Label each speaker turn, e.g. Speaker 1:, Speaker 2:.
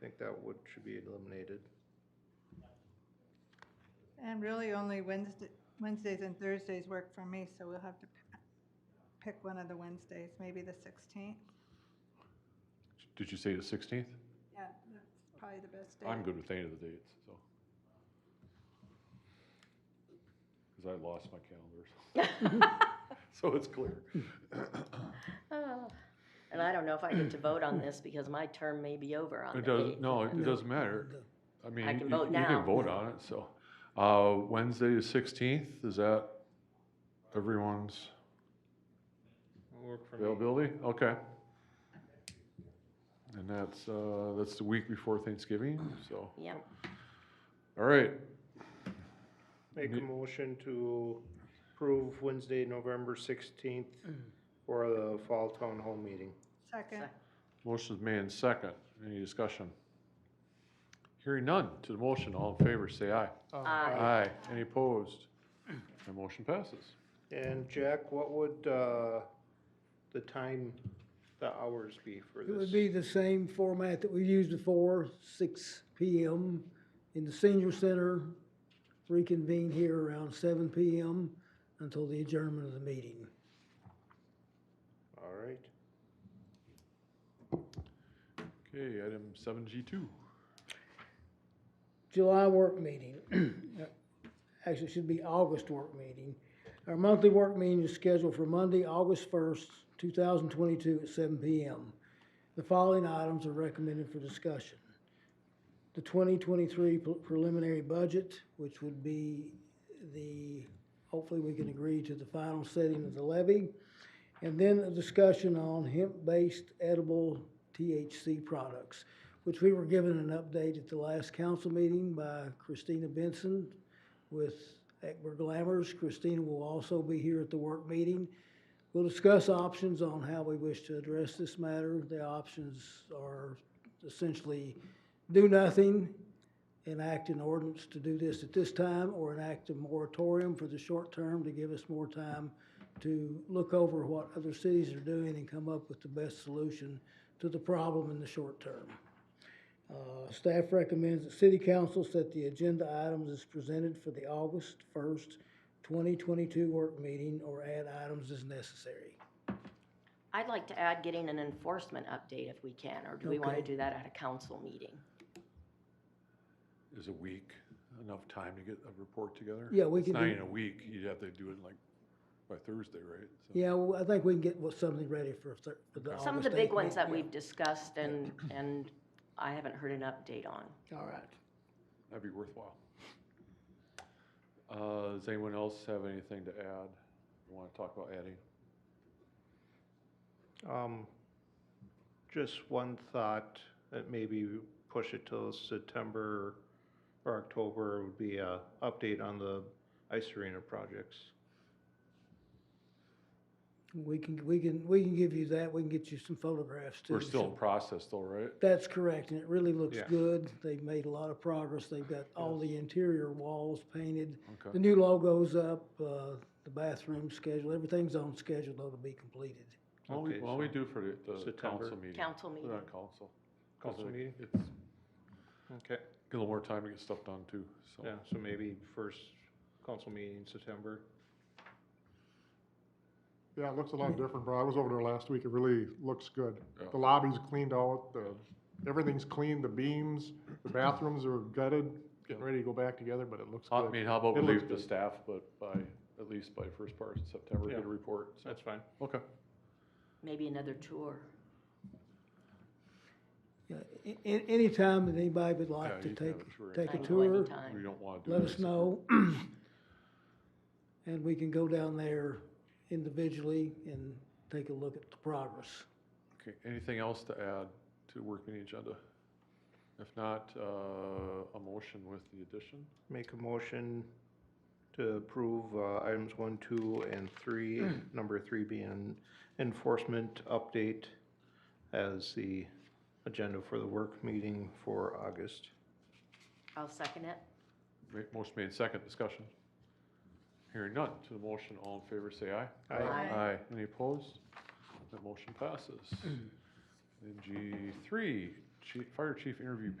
Speaker 1: think that would, should be eliminated.
Speaker 2: And really only Wednesday, Wednesdays and Thursdays work for me, so we'll have to p- pick one of the Wednesdays, maybe the 16th.
Speaker 3: Did you say the 16th?
Speaker 2: Yeah, that's probably the best day.
Speaker 3: I'm good with any of the dates, so. Because I lost my calendar, so- so it's clear.
Speaker 4: Ah, And I don't know if I get to vote on this because my term may be over on
Speaker 3: It
Speaker 4: the
Speaker 3: doesn't,
Speaker 4: 8th.
Speaker 3: no, it doesn't matter. I mean,
Speaker 4: can
Speaker 3: you-
Speaker 4: vote
Speaker 3: You
Speaker 4: now.
Speaker 3: can vote on it, so. Uh, Wednesday the 16th, is that everyone's
Speaker 1: Work for
Speaker 3: availability? Okay. And that's, uh, that's the week before Thanksgiving, so,
Speaker 4: Yep,
Speaker 3: all right.
Speaker 1: Make a motion to approve Wednesday, November sixteenth for the fall town hall meeting.
Speaker 2: Second,
Speaker 3: Motion's made and second. Any discussion? Hearing none to the motion. All in favor, say aye.
Speaker 1: Uh,
Speaker 4: Aye.
Speaker 3: Aye. Any opposed? The motion passes.
Speaker 1: And Jack, what would, uh, the time, the hours be for this?
Speaker 5: It would be the same format that we used before, six PM in the senior center, reconvene here around seven PM until the adjournment of the meeting.
Speaker 1: All right.
Speaker 3: Okay, item seven G two.
Speaker 5: July work meeting, actually it should be August work meeting. Our monthly work meeting is scheduled for Monday, August first, two thousand twenty-two at seven PM. The following items are recommended for discussion. The twenty twenty-three preliminary budget, which would be the, hopefully we can agree to the final setting of the levy. And then a discussion on hemp-based edible THC products which we were given an update at the last council meeting by Christina Benson with Eckberg Glamours. Christina will also be here at the work meeting. We'll discuss options on how we wish to address this matter. The options are essentially do nothing, enact an ordinance to do this at this time, or enact a moratorium for the short term to give us more time to look over what other cities are doing and come up with the best solution to the problem in the short term. Uh, Staff recommends that city council set the agenda items as presented for the August first, twenty twenty-two work meeting or add items as necessary.
Speaker 4: I'd like to add getting an enforcement update if we can, or do we want to
Speaker 5: Okay.
Speaker 4: do that at a council meeting?
Speaker 3: Is a week enough time to get a report together?
Speaker 5: Yeah, we
Speaker 3: It's
Speaker 5: could
Speaker 3: not
Speaker 5: do-
Speaker 3: even a week. You'd have to do it like by Thursday, right? So-
Speaker 5: Yeah, well, I think we can get what- something ready for thir- for the August
Speaker 4: Some of the big
Speaker 5: 8th
Speaker 4: ones that
Speaker 5: meeting.
Speaker 4: we've discussed and, and I haven't heard an update on.
Speaker 5: All right.
Speaker 3: That'd be worthwhile. Uh, does anyone else have anything to add? Want to talk about adding?
Speaker 1: Um, just one thought that maybe push it till September or October would be a update on the ice arena projects.
Speaker 5: We can, we can, we can give you that. We can get you some photographs too.
Speaker 3: We're still in process though, right?
Speaker 5: That's correct, and it really looks
Speaker 1: Yeah.
Speaker 5: good. They've made a lot of progress. They've got all the interior walls painted. The
Speaker 3: Okay,
Speaker 5: new logo's up, uh, the bathroom schedule, everything's on schedule though to be completed.
Speaker 3: well, we,
Speaker 1: Okay,
Speaker 3: well, we
Speaker 1: so
Speaker 3: do for the- the
Speaker 1: September.
Speaker 3: council meeting.
Speaker 4: Council meeting.
Speaker 3: Not council. 'Cause
Speaker 1: Council
Speaker 3: it-
Speaker 1: meeting?
Speaker 3: It's
Speaker 1: Okay.
Speaker 3: Get a little more time to get stuff done too, so.
Speaker 1: Yeah, so maybe first council meeting in September.
Speaker 6: Yeah, it looks a lot different, bro. I was over there last week. It really looks good.
Speaker 3: Yeah.
Speaker 6: The lobby's cleaned out, the, everything's clean, the beams, the bathrooms are gutted, getting
Speaker 3: Yeah. Uh,
Speaker 6: ready to go back together, but it looks
Speaker 3: I
Speaker 6: good.
Speaker 3: mean, how about we
Speaker 6: It looks
Speaker 3: leave the
Speaker 6: good.
Speaker 3: staff, but by, at least by first part of September, get
Speaker 1: Yeah.
Speaker 3: a report, so,
Speaker 1: That's fine.
Speaker 3: okay.
Speaker 4: Maybe another tour.
Speaker 5: Yeah, Uh, a- a- anytime that anybody would
Speaker 3: Yeah,
Speaker 5: like to
Speaker 3: you can have
Speaker 5: take,
Speaker 3: a tour
Speaker 5: take
Speaker 4: I
Speaker 5: a
Speaker 4: know
Speaker 5: tour,
Speaker 4: anytime.
Speaker 3: We don't wanna do
Speaker 5: let
Speaker 3: that.
Speaker 5: us know. And we can go down there individually and take a look at the progress.
Speaker 3: Okay, anything else to add to work meeting agenda? If not, uh, a motion with the addition,
Speaker 1: Make a motion to approve uh, items one, two, and three, number three being enforcement update as the agenda for the work meeting for August.
Speaker 4: I'll second it.
Speaker 3: Ma- motion made second, discussion. Hearing none, to the motion, all in favor, say aye.
Speaker 1: Aye.
Speaker 4: Aye.
Speaker 3: Aye, any opposed? That motion passes. Then G three, chief, fire chief interview